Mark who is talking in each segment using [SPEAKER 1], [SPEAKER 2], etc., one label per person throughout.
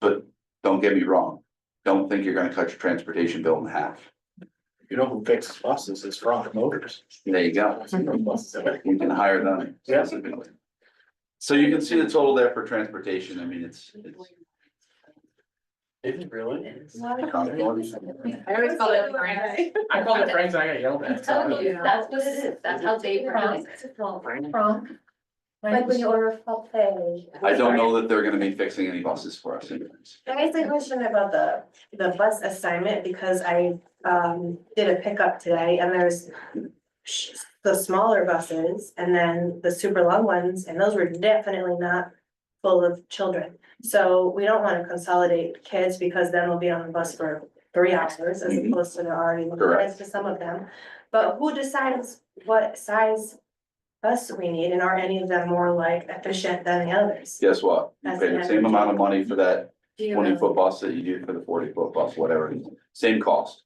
[SPEAKER 1] But don't get me wrong, don't think you're gonna cut your transportation bill in half.
[SPEAKER 2] You know who fixes buses is Frank Motors.
[SPEAKER 1] There you go. You can hire them.
[SPEAKER 2] Yeah.
[SPEAKER 1] So you can see the total there for transportation. I mean, it's, it's.
[SPEAKER 2] Is it really?
[SPEAKER 3] I always call it Frank.
[SPEAKER 2] I called it Frank's, I got yelled at.
[SPEAKER 3] That's what it is, that's how they pronounce it.
[SPEAKER 4] From. Like when you order a buffet.
[SPEAKER 1] I don't know that they're gonna be fixing any buses for us anyways.
[SPEAKER 4] Can I ask a question about the, the bus assignment, because I, um, did a pickup today, and there's sh- the smaller buses, and then the super long ones, and those were definitely not full of children. So we don't wanna consolidate kids, because then we'll be on the bus for three hours, as
[SPEAKER 1] Mhm.
[SPEAKER 5] Mm-hmm.
[SPEAKER 4] opposed to the already
[SPEAKER 1] Correct.
[SPEAKER 4] limited to some of them. But who decides what size bus we need, and are any of them more like efficient than the others?
[SPEAKER 1] Guess what? You pay the same amount of money for that
[SPEAKER 3] Do you
[SPEAKER 1] twenty
[SPEAKER 3] know?
[SPEAKER 1] foot bus that you do for the forty foot bus, whatever. it is. Same cost.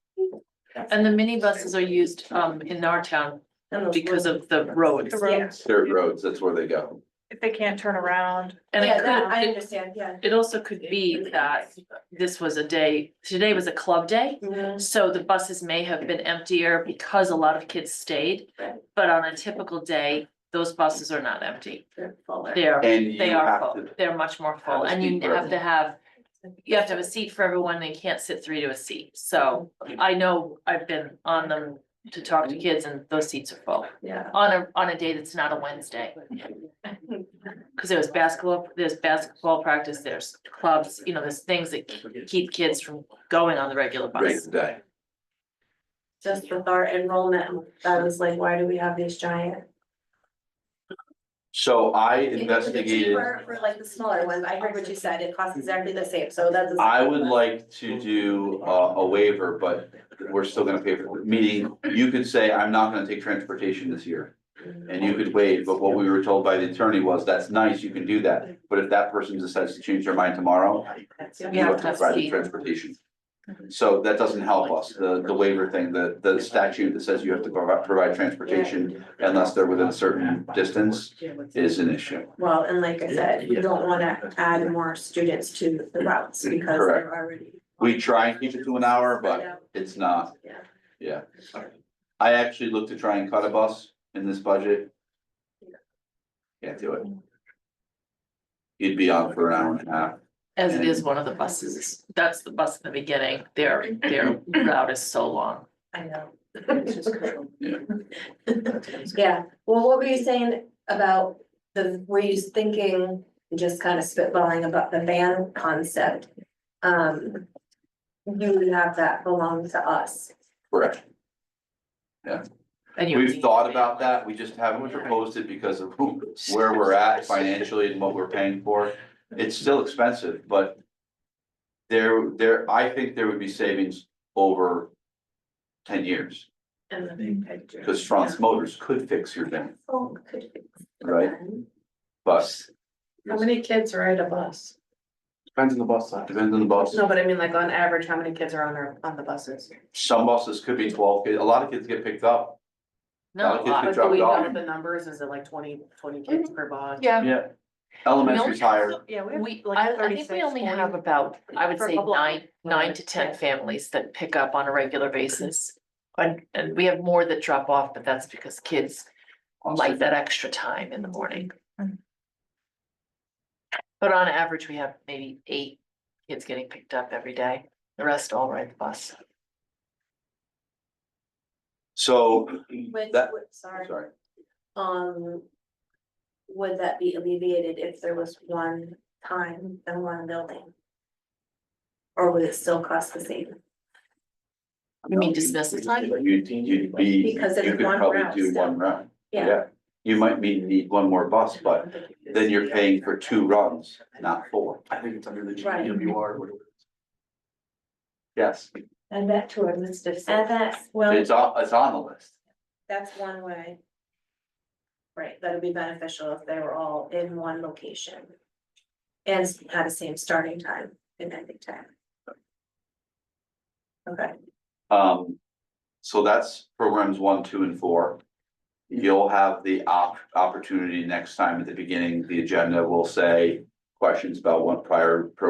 [SPEAKER 5] And the minibuses are used um in our town
[SPEAKER 4] And those
[SPEAKER 5] because
[SPEAKER 4] little-
[SPEAKER 5] of the roads.
[SPEAKER 4] The roads.
[SPEAKER 1] Third roads, that's where they go.
[SPEAKER 6] if they can't turn around.
[SPEAKER 5] And
[SPEAKER 4] Yeah,
[SPEAKER 5] it
[SPEAKER 4] that- I
[SPEAKER 5] could,
[SPEAKER 4] understand, yeah.
[SPEAKER 5] it also could be uh, that this was a day, today was a club day.
[SPEAKER 4] Mhm.
[SPEAKER 5] So the buses may have been emptier because a lot of kids stayed.
[SPEAKER 4] Right.
[SPEAKER 5] But on a typical day, those buses are not empty.
[SPEAKER 4] They're fuller.
[SPEAKER 5] They're,
[SPEAKER 1] And you
[SPEAKER 5] they are
[SPEAKER 1] have
[SPEAKER 5] full.
[SPEAKER 1] to,
[SPEAKER 5] They're much more full
[SPEAKER 1] a
[SPEAKER 5] and you
[SPEAKER 1] seat for
[SPEAKER 5] have to have, you have to have a seat for everyone. They can't sit three to a seat. So I know I've been on them to talk to kids and those seats are full.
[SPEAKER 4] Yeah.
[SPEAKER 5] On a, on a day that's not a Wednesday. Cause there was basketball, there's basketball practice, there's clubs, you know, there's things that ke- keep kids from going on the regular
[SPEAKER 1] break
[SPEAKER 5] bus.
[SPEAKER 1] the day.
[SPEAKER 4] Just with our enrollment, that was like, why do we have these giant?
[SPEAKER 1] So I
[SPEAKER 4] If it was
[SPEAKER 1] investigated.
[SPEAKER 4] cheaper For like the smaller ones, I heard what you said, it costs exactly the same, so that's. the
[SPEAKER 1] I
[SPEAKER 4] same
[SPEAKER 1] would
[SPEAKER 4] one.
[SPEAKER 1] like to do a, a waiver, but we're still gonna pay for it, meaning you could say, I'm not gonna take transportation this year. And you could waive, but what we were told by the attorney was, that's nice, you can do that, but if that person decides to change their mind tomorrow,
[SPEAKER 4] That's-
[SPEAKER 1] you
[SPEAKER 5] Yeah.
[SPEAKER 4] yeah.
[SPEAKER 1] have to provide the transportation. So that doesn't help us, the, the waiver thing, the, the statute that says you have to provide, provide transportation unless they're within a certain distance is an issue.
[SPEAKER 4] Well, and like I said, you don't wanna add more students to the routes because
[SPEAKER 1] Correct.
[SPEAKER 4] they're already.
[SPEAKER 1] We try and keep it to an hour, but it's not.
[SPEAKER 4] Yeah.
[SPEAKER 1] Yeah. I actually looked to try and cut a bus in this budget. Can't do it. You'd be on for an hour and a half.
[SPEAKER 5] As it is one of the buses. That's the bus in the beginning. Their, their route is so long.
[SPEAKER 4] I know.
[SPEAKER 1] Yeah.
[SPEAKER 4] Yeah, well, what were you saying about the, were you thinking, just kind of spitballing about the van concept? Um, you would have that belong to us.
[SPEAKER 1] Correct.
[SPEAKER 5] And you-
[SPEAKER 1] We've thought about that. We just haven't proposed it because of who- where we're at financially and what we're paying for. It's still expensive, but there, there, I think there would be savings over ten years,
[SPEAKER 4] And the big picture.
[SPEAKER 1] because France Motors could fix your van,
[SPEAKER 4] Oh, could be.
[SPEAKER 1] right? But
[SPEAKER 6] How many kids ride a bus?
[SPEAKER 2] Depends on the bus size.
[SPEAKER 1] depends on the bus.
[SPEAKER 6] No, but I mean, like, on average, how many kids are on their, on the buses?
[SPEAKER 1] Some buses could be twelve kids, a lot of kids get picked up.
[SPEAKER 5] Not a
[SPEAKER 1] Kids
[SPEAKER 5] lot.
[SPEAKER 1] get
[SPEAKER 6] Like,
[SPEAKER 1] dropped
[SPEAKER 6] do we know
[SPEAKER 1] off.
[SPEAKER 6] the numbers, is it like 20 20 kids
[SPEAKER 4] Mhm.
[SPEAKER 6] per bus?
[SPEAKER 5] Yeah.
[SPEAKER 1] Yeah. Elementary's higher,
[SPEAKER 6] Yeah,
[SPEAKER 5] We, I, I think we only have about, I would
[SPEAKER 6] For a
[SPEAKER 5] say
[SPEAKER 6] couple of
[SPEAKER 5] nine, nine to ten
[SPEAKER 6] Yeah.
[SPEAKER 5] families that pick up on a regular basis. And, and we have more that drop off, but that's because kids like that extra time in the morning.
[SPEAKER 6] Mm.
[SPEAKER 5] But on average, we have maybe eight kids getting picked up every day. The rest all ride the bus.
[SPEAKER 1] so
[SPEAKER 4] With,
[SPEAKER 1] that,
[SPEAKER 4] with- sorry,
[SPEAKER 1] sorry,
[SPEAKER 4] um. Would that be alleviated if there was one time and one building? Or would it still cost the same?
[SPEAKER 5] You mean dismiss the time?
[SPEAKER 1] you'd, you'd be, you
[SPEAKER 4] Because it's
[SPEAKER 1] could
[SPEAKER 4] one
[SPEAKER 1] probably
[SPEAKER 4] route
[SPEAKER 1] do
[SPEAKER 4] still.
[SPEAKER 1] one run, yeah. You might be, need one more bus, but then you're paying for two runs, not four.
[SPEAKER 2] I think it's under the
[SPEAKER 4] Right.
[SPEAKER 2] GWR. whatever.
[SPEAKER 1] Yes,
[SPEAKER 4] And that to our list of. And that's, well,
[SPEAKER 1] it's on, it's on the list.
[SPEAKER 4] that's one way. Right, that'd be beneficial if they were all in one location. And had the same starting time and ending time. Okay,
[SPEAKER 1] Um, so that's programs one, two, and four. You'll have the op- opportunity next time at the beginning, the agenda will say questions about one prior program